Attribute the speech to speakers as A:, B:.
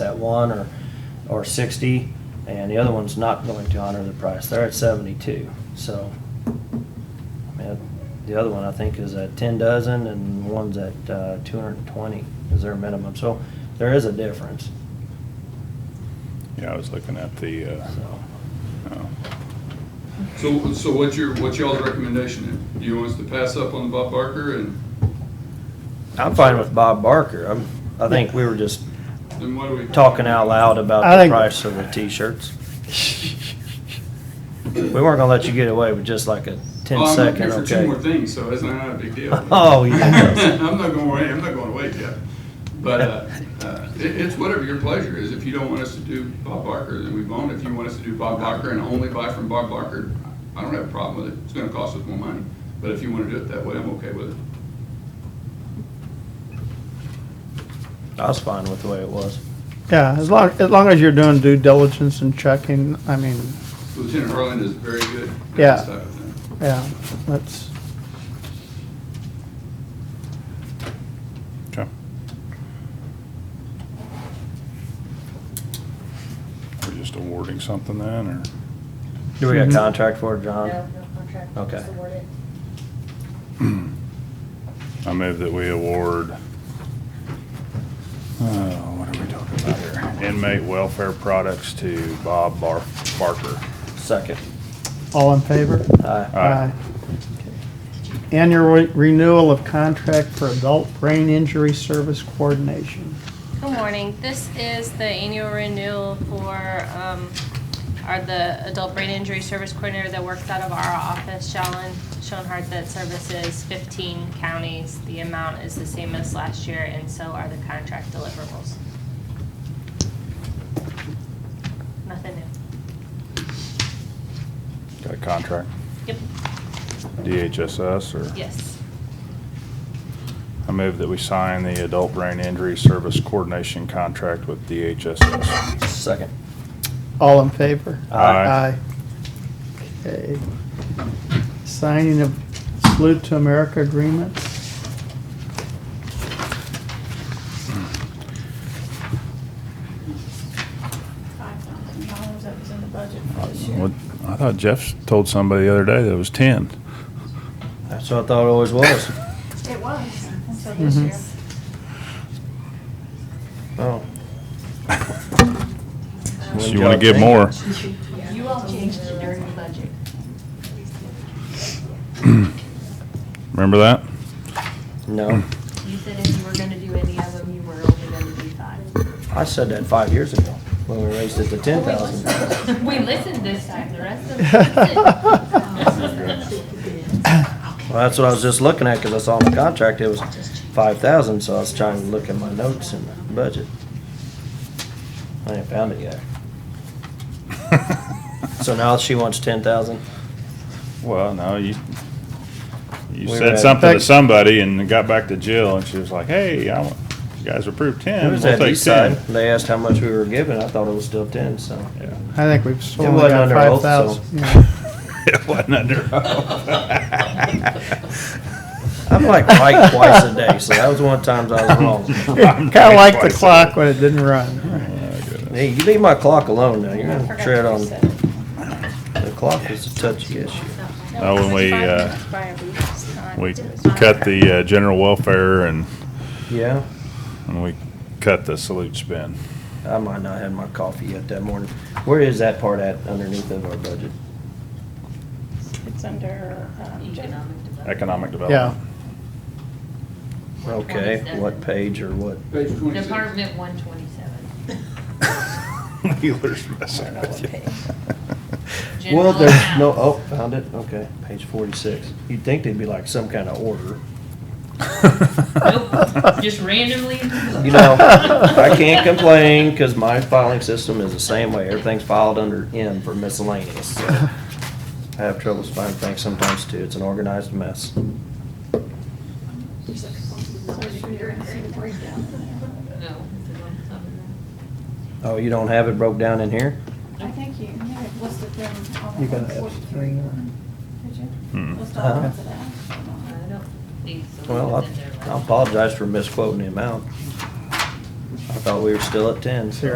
A: one or, or sixty, and the other one's not going to honor the price. They're at seventy-two, so. I mean, the other one, I think, is at ten dozen, and one's at, uh, two hundred and twenty is their minimum, so there is a difference,
B: Yeah, I was looking at the, uh,
A: so.
B: oh.
C: So, so what's your, what's y'all's recommendation then? Do you want us to pass up on Bob Barker and
A: I'm fine with Bob Barker. I'm, I think we were just
C: then what do we?
A: talking out loud about
D: I
A: the
D: think-
A: price of the t-shirts. We weren't gonna let you get away with just like a ten
C: Well, I'm
A: second,
C: looking for two more
A: okay?
C: things, so it's not a big deal.
A: Oh, yeah.
C: I'm not going away, I'm not going away yet. But, uh, uh, it, it's whatever your pleasure is. If you don't want us to do Bob Barker, then we won't. If you want us to do Bob Barker and only buy from Bob Barker, I don't have a problem with it. It's gonna cost us more money. But if you wanna do it that way, I'm okay with it.
A: I was fine with the way it was.
D: Yeah, as long, as long as you're doing due diligence and checking, I mean,
C: Lieutenant Harlan is very good at
D: Yeah.
C: this type of thing.
D: yeah, that's,
B: Okay. We're just awarding something then, or?
A: Do we got a
D: Mhm.
A: contract for it,
E: No, no
A: John?
E: contract.
A: Okay.
E: Just awarded.
B: I move that we award, oh, what are we talking about here? Inmate welfare products to Bob Bar- Barker. Uh,
A: Second.
D: all in favor?
A: Aye.
B: Aye.
D: Annual re- renewal of contract for adult brain injury service coordination.
F: Good morning. This is the annual renewal for, um, our, the adult brain injury service coordinator that works out of our office, Shallon, Schoenhardt, that services fifteen counties. The amount is the same as last year, and so are the contract deliverables. Nothing new.
B: Got a contract,
F: Yep,
B: DHSS, or?
F: yes.
B: I move that we sign the adult brain injury service coordination contract with DHSS.
A: Second.
D: All in favor?
B: Aye.
D: Aye. Okay. Signing of Salute to America agreements.
E: Five thousand dollars that was in the budget for this year.
B: What, I thought Jeff told somebody the other day that it was ten.
A: That's what I thought it always was.
E: It was, until this
B: Mm-hmm.
D: Mhm.
E: year.
A: Oh.
B: So you wanna give more?
E: You all changed it during the budget.
B: Remember that?
A: No,
E: You said if you were gonna do any of them, you were only gonna do five.
A: I said that five years ago when we raised it to ten thousand.
F: We listened this time, the rest of them listened.
A: Well, that's what I was just looking at, cause I saw in the contract, it was five thousand, so I was trying to look at my notes in the budget. I ain't found it yet. So now she wants ten thousand?
B: Well, no, you, you
A: We
B: said
A: had-
B: something to somebody and it got back to Jill and she was like, hey, I want, you guys approved
A: It
B: ten, we'll
A: was at
B: take ten.
A: Eastside, they asked how much we were giving, I thought it was still ten, so.
B: Yeah.
D: I think we've
A: It
D: sold
A: wasn't
D: got
A: under
D: five
A: oath, so-
D: thousand. Yeah.
B: It wasn't under
A: I'm like right twice a day, so that was one of the times I was wrong.
D: Kinda like the
B: Twice a Oh,
D: clock when it didn't run.
A: Hey, you leave my clock alone now, you're
F: I
A: gonna
F: forgot
A: tread
F: to
A: on,
F: reset it.
A: the clock is a touchy issue.
B: Oh, when we, uh, We cut
F: cut
B: the, uh, general welfare and,
A: Yeah,
B: and we cut the salute spend.
A: I might not have my coffee yet that morning. Where is that part at underneath of our budget?
G: It's under, um, gen-
E: Economic development.
B: Economic
D: Yeah.
B: development.
A: Okay, what page or what?
C: Page twenty-six.
E: Department one twenty-seven.
B: Wheeler's messing with you.
A: Well,
E: General
A: there's no,
E: account.
A: oh, found it, okay, page forty-six. You'd think they'd be like some kind of order.
E: Nope, just randomly.
A: You know, I can't complain, cause my filing system is the same way. Everything's filed under M for miscellaneous, so. I have troubles finding things sometimes too. It's an organized mess.
E: No.
A: Oh, you don't have it broke down in here?
G: I think you, you had listed them on
D: You
G: the
D: got an
G: one
D: F three
G: forty-three.
D: on.
G: Did you?
B: Hmm.
G: List
A: Uh-huh.
G: all the ones that I asked.
E: I don't think so.
A: Well, I
E: It's in there, right?
A: I apologize for misquoting the amount. I thought we were still at ten, so.